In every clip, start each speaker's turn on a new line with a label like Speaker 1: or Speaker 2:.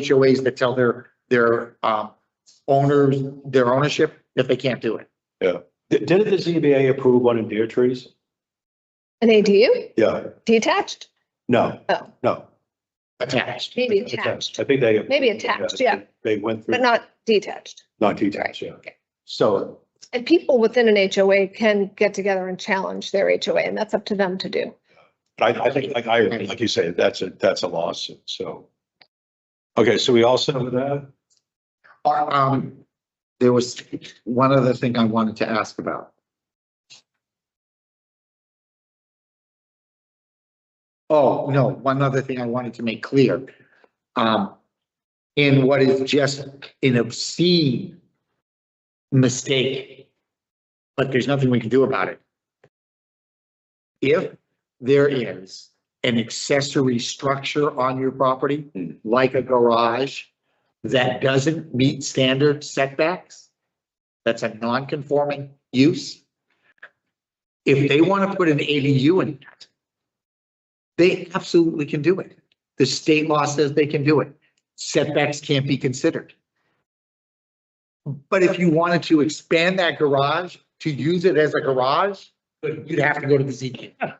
Speaker 1: HOAs that tell their, their, um, owners, their ownership, that they can't do it.
Speaker 2: Did, didn't the ZBA approve one in Deer Trees?
Speaker 3: An ADU
Speaker 2: Yeah.
Speaker 3: detached?
Speaker 2: No,
Speaker 3: Oh.
Speaker 2: no.
Speaker 1: Attached.
Speaker 3: Maybe attached,
Speaker 2: I think they.
Speaker 3: Maybe attached, yeah.
Speaker 2: They went
Speaker 3: but
Speaker 2: through,
Speaker 3: not detached.
Speaker 2: not detached, yeah.
Speaker 3: okay.
Speaker 2: So,
Speaker 3: And people within an HOA can get together and challenge their HOA and that's up to them to do.
Speaker 2: but I, I think, like I, like you say, that's a, that's a lawsuit, so. Okay, so we all set with that?
Speaker 1: Or, um, there was one other thing I wanted to ask about. Oh, no, one other thing I wanted to make clear. Um, in what is just an obscene mistake, but there's nothing we can do about it. If there is an accessory structure on your property, like a garage, that doesn't meet standard setbacks, that's a non-conforming use. If they want to put an ADU in that, they absolutely can do it. The state law says they can do it. Setbacks can't be considered. But if you wanted to expand that garage to use it as a garage, you'd have to go to the ZBA.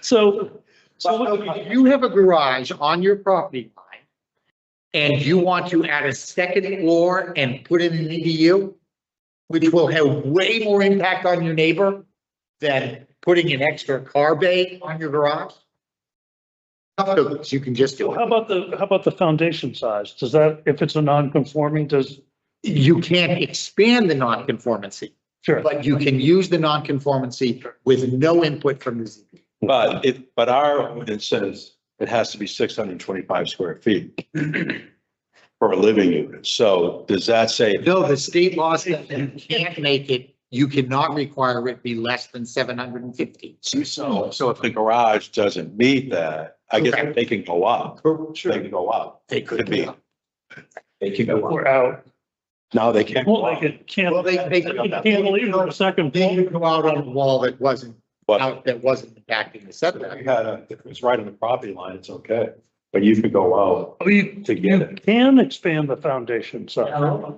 Speaker 4: So, so
Speaker 1: So
Speaker 4: what-
Speaker 1: if you have a garage on your property line and you want to add a second floor and put in an EDU, which will have way more impact on your neighbor than putting an extra car bay on your garage. Tough to- You can just do
Speaker 4: how
Speaker 1: it.
Speaker 4: about the, how about the foundation size? Does that, if it's a non-conforming, does,
Speaker 1: You can't expand the nonconformity,
Speaker 4: sure.
Speaker 1: but you can use the nonconformity with no input from the ZBA.
Speaker 2: But it, but our ordinance says it has to be six hundred and twenty-five square feet for a living unit. So does that say
Speaker 1: No, the state law says that you can't make it, you cannot require it be less than seven hundred and fifty.
Speaker 2: So, so if the garage doesn't meet that, I guess
Speaker 1: Correct.
Speaker 2: they can go up. They
Speaker 1: Sure.
Speaker 2: can go up.
Speaker 1: They could be.
Speaker 2: They can go
Speaker 4: We're out.
Speaker 2: No, they can't. go
Speaker 4: Well,
Speaker 2: up,
Speaker 4: they could, can't,
Speaker 1: Well, they, they.
Speaker 4: they can't leave for a second.
Speaker 1: They could go out on a wall that wasn't,
Speaker 2: But
Speaker 1: out, that wasn't impacting the
Speaker 2: if
Speaker 1: setback.
Speaker 2: you had a, if it was right on the property line, it's okay. But you could go out
Speaker 4: Oh, you
Speaker 2: to get it.
Speaker 4: can expand the foundation size.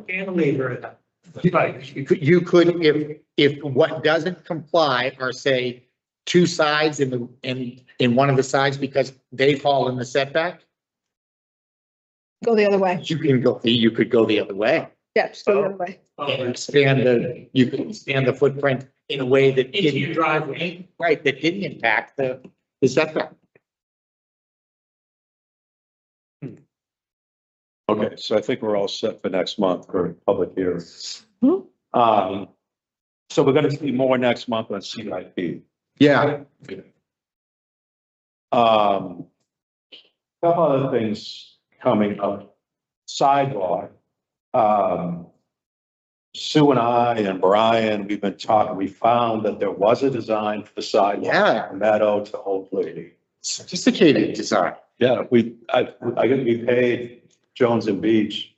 Speaker 1: Cantilever. You could, you could, if, if what doesn't comply are say two sides in the, in, in one of the sides because they fall in the setback,
Speaker 3: Go the other way.
Speaker 1: you can go, you could go the other way.
Speaker 3: Yeah, just go the other way.
Speaker 1: and expand the, you can expand the footprint in a way that. Into your driveway. Right, that didn't impact the, the setback.
Speaker 2: Okay, so I think we're all set for next month for public hearing.
Speaker 4: Hmm.
Speaker 2: Um, so we're gonna see more next month on CIP.
Speaker 1: Yeah.
Speaker 2: Um, couple other things coming up, sidewalk. Um, Sue and I and Brian, we've been talking, we found that there was a design for the sidewalk
Speaker 1: Yeah,
Speaker 2: from Meadow to Old Lady.
Speaker 1: sophisticated design.
Speaker 2: Yeah, we, I, I think we paid Jones and Beach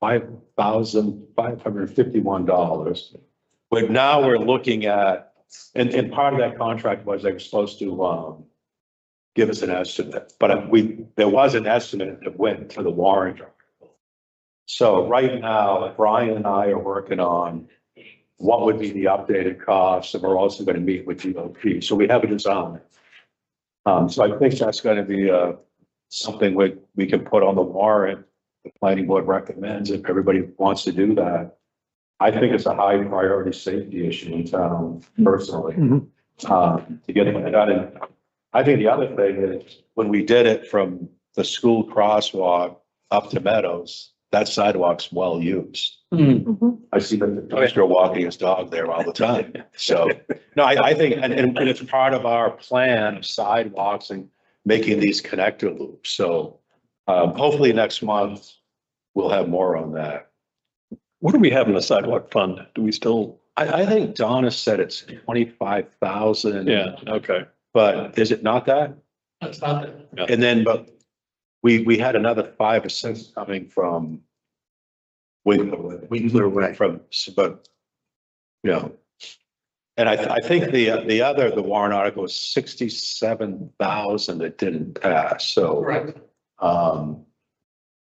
Speaker 2: five thousand five hundred fifty-one dollars. But now we're looking at, and, and part of that contract was they were supposed to, um, give us an estimate, but we, there was an estimate that went to the warrant. article. So right now, Brian and I are working on what would be the updated costs, and we're also gonna meet with DOT, so we have a design. Um, so I think that's gonna be, uh, something we, we can put on the warrant. The planning board recommends if everybody wants to do that. I think it's a high priority safety issue in town personally,
Speaker 4: Mhm.
Speaker 2: um, to get it done. And I think the other thing is when we did it from the school crosswalk up to Meadows, that sidewalk's well used. I see the dumpster walking his dog there all the time. So, no, I, I think, and, and and it's part of our plan of sidewalks and making these connector loops. So, um, hopefully next month, we'll have more on that. What do we have in the sidewalk fund? Do we still? I, I think Donna said it's twenty-five thousand.
Speaker 5: Yeah, okay.
Speaker 2: But is it not that?
Speaker 5: That's not it.
Speaker 2: And then, but we, we had another five or six coming from Winkler, Winkler
Speaker 1: Way.
Speaker 2: from, but, you know. And I, I think the, the other, the warrant article was sixty-seven thousand that didn't pass, so,
Speaker 5: Correct.
Speaker 2: um,